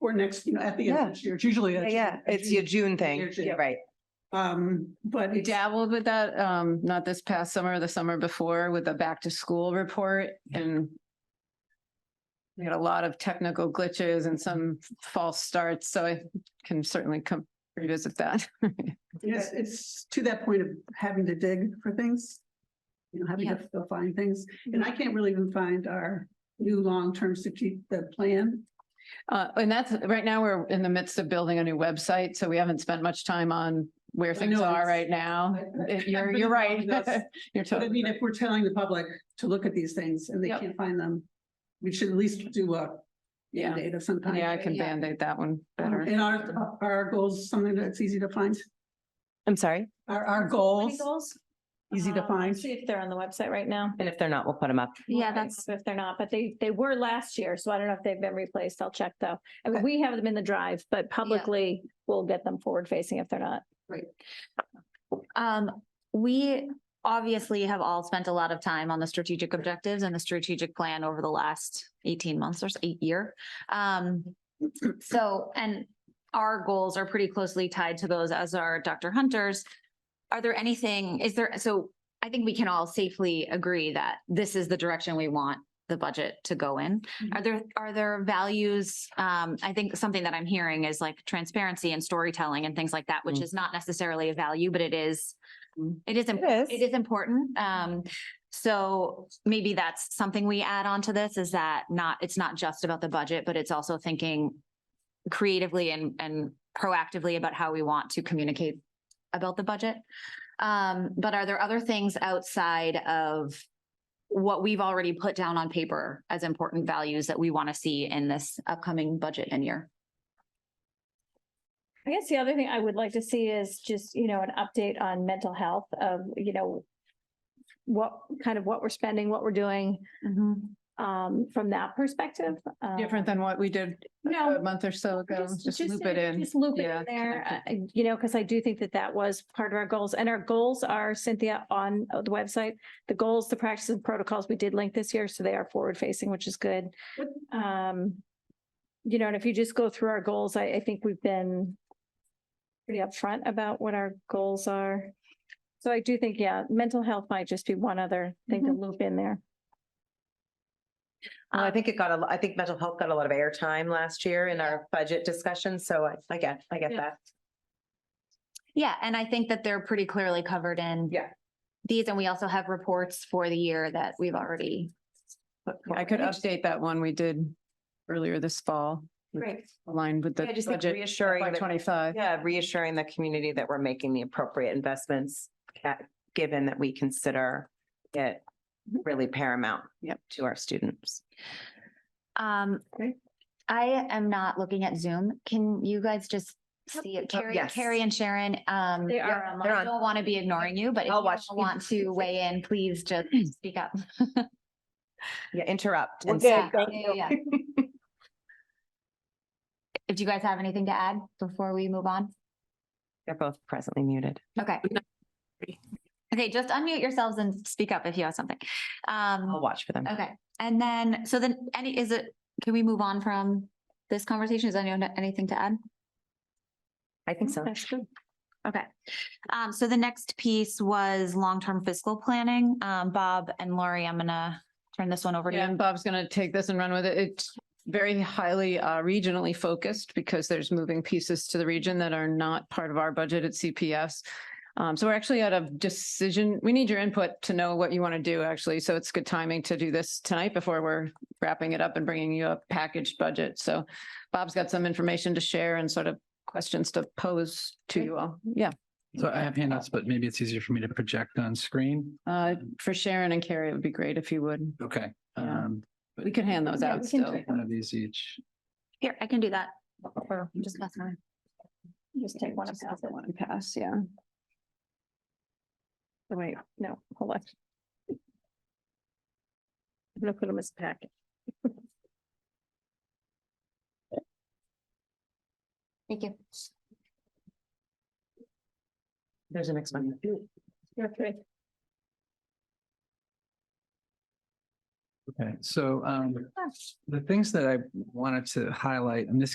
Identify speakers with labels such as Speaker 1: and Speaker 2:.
Speaker 1: or next, you know, at the end of
Speaker 2: Yeah.
Speaker 1: this year. It's usually.
Speaker 2: Yeah,
Speaker 1: a-
Speaker 2: yeah,
Speaker 1: a
Speaker 2: it's your
Speaker 1: June-
Speaker 2: June
Speaker 1: your
Speaker 2: thing,
Speaker 1: June.
Speaker 2: right?
Speaker 1: Um, but
Speaker 3: We
Speaker 1: it's,
Speaker 3: dabbled with that, um, not this past summer, the summer before with the back to school report and we had a lot of technical glitches and some false starts, so I can certainly come revisit that.
Speaker 1: it's, it's to that point of having to dig for things. You know, having to go find things. And
Speaker 3: Mm-hmm.
Speaker 1: I can't really even find our new long-term strategic, the plan.
Speaker 3: Uh, and that's, right now, we're in the midst of building a new website, so we haven't spent much time on where
Speaker 1: I
Speaker 3: things
Speaker 1: know,
Speaker 3: are
Speaker 1: it's-
Speaker 3: right now.
Speaker 1: I-
Speaker 3: It-
Speaker 1: I-
Speaker 3: Um, You're,
Speaker 1: I've
Speaker 3: you're
Speaker 1: been
Speaker 3: right.
Speaker 1: following this.
Speaker 3: You're
Speaker 1: But I
Speaker 3: totally,
Speaker 1: mean, if we're telling the public to look at these things and they
Speaker 3: Yep.
Speaker 1: can't find them, we should at least do a
Speaker 3: yeah,
Speaker 1: data sometime.
Speaker 3: yeah, I can
Speaker 2: Yeah. Um,
Speaker 3: Band-Aid that one better.
Speaker 1: And our, our goals, something that's easy to find,
Speaker 2: I'm sorry.
Speaker 1: our, our
Speaker 4: Company
Speaker 1: goals,
Speaker 4: Goals.
Speaker 1: easy to
Speaker 4: Um,
Speaker 1: find.
Speaker 4: See if they're on the website right now.
Speaker 2: And if they're not, we'll put them up.
Speaker 4: Yeah, that's. If they're not, but they, they were last year, so I don't know if they've been replaced. I'll check though. I mean,
Speaker 1: Okay.
Speaker 4: we have them in the drive, but publicly we'll get them forward facing if they're not.
Speaker 5: Um, we obviously have all spent a lot of time on the strategic objectives and the strategic plan over the last eighteen months or s- eight year. Um, so, and our goals are pretty closely tied to those as are Dr. Hunter's. Are there anything, is there, so I think we can all safely agree that this is the direction we want the budget to go in. Are there, are there values? Um, I think something that I'm hearing is like transparency and storytelling and things like that, which
Speaker 2: Mm.
Speaker 5: is not necessarily a value, but it is,
Speaker 3: Mm.
Speaker 5: it is, imp-
Speaker 2: It
Speaker 5: it is important. Um, so maybe that's something we add on to this is that not, it's not just about the budget, but it's also thinking creatively and, and proactively about how we want to communicate about the budget. Um, but are there other things outside of what we've already put down on paper as important values that we want to see in this upcoming budget and year?
Speaker 4: I guess the other thing I would like to see is just, you know, an update on mental health of, you know, what kind of what we're spending, what we're doing,
Speaker 1: Mm-hmm.
Speaker 4: um, from that perspective. Um,
Speaker 3: Different than what we did
Speaker 4: No,
Speaker 3: a month or so ago,
Speaker 4: Just-
Speaker 3: just
Speaker 4: just
Speaker 3: loop it in.
Speaker 4: Just loop it
Speaker 3: Yeah,
Speaker 4: in there,
Speaker 3: connect
Speaker 4: uh, you know, because I do think that that was part of our goals and our goals are Cynthia on uh, the website. The goals, the practices and protocols we did link this year, so they are forward facing, which is good. Um, you know, and if you just go through our goals, I, I think we've been pretty upfront about what our goals are. So I do think, yeah, mental health might just be one other thing to
Speaker 3: Mm-hmm.
Speaker 4: loop in there.
Speaker 2: Well, I think it got a, lo- I think mental health got a lot of airtime last year in our budget discussion. So I, I get, I get
Speaker 4: Yeah.
Speaker 2: that.
Speaker 5: Yeah, and I think that they're pretty clearly covered in
Speaker 2: Yeah.
Speaker 5: these, and we also have reports for the year that we've already. put
Speaker 3: I
Speaker 5: forward.
Speaker 3: could update that one we did earlier this fall.
Speaker 5: Great.
Speaker 3: Aligned with the
Speaker 2: I just think
Speaker 3: budget
Speaker 2: reassuring, that-
Speaker 3: twenty-five.
Speaker 2: yeah, reassuring the community that we're making the appropriate investments at, given that we consider it really paramount
Speaker 3: Yep.
Speaker 2: to our students.
Speaker 5: Um,
Speaker 2: Okay.
Speaker 5: I am not looking at Zoom. Can you guys just see it? Carrie,
Speaker 2: Oh, yes.
Speaker 5: Carrie and Sharon, um,
Speaker 4: They are
Speaker 5: I
Speaker 4: online.
Speaker 2: they're on.
Speaker 5: don't want to be ignoring you, but if
Speaker 2: I'll
Speaker 5: you
Speaker 2: watch.
Speaker 5: want to weigh in, please just speak up.
Speaker 2: Yeah, interrupt.
Speaker 6: We're
Speaker 2: and
Speaker 6: good,
Speaker 2: speak.
Speaker 6: thank
Speaker 5: Yeah, yeah, yeah. If you guys have anything to add before we move on?
Speaker 2: They're both presently muted.
Speaker 5: Okay. Okay, just unmute yourselves and speak up if you have something.
Speaker 2: I'll
Speaker 5: Um,
Speaker 2: watch for them.
Speaker 5: okay, and then, so then, any, is it, can we move on from this conversation? Is anyone, anything to add?
Speaker 2: I think so.
Speaker 4: That's good.
Speaker 5: Okay. Um, so the next piece was long-term fiscal planning. Um, Bob and Lori, I'm gonna turn this one over to
Speaker 3: Yeah,
Speaker 5: you.
Speaker 3: and Bob's going to take this and run with it. It's very highly uh, regionally focused because there's moving pieces to the region that are not part of our budget at CPS. Um, so we're actually at a decision. We need your input to know what you want to do, actually. So it's good timing to do this tonight before we're wrapping it up and bringing you a packaged budget. So Bob's got some information to share and sort of questions to pose to you all. Yeah,
Speaker 7: So I have handouts, but maybe it's easier for me to project on screen.
Speaker 3: uh, for Sharon and Carrie, it would be great if you would.
Speaker 7: Okay.
Speaker 3: Yeah.
Speaker 7: um,
Speaker 3: We could hand those
Speaker 4: Yeah,
Speaker 3: out
Speaker 4: we can do
Speaker 3: still.
Speaker 4: it.
Speaker 7: One of these each.
Speaker 5: Here, I can do that. Or just pass mine.
Speaker 4: Just take one and pass it.
Speaker 3: One pass, yeah.
Speaker 4: Oh, Wait, no, hold on. I'm gonna put them as a packet.
Speaker 5: Thank you.
Speaker 2: There's a next one.
Speaker 4: Okay.
Speaker 7: Okay, so um, the things that I wanted to highlight, and this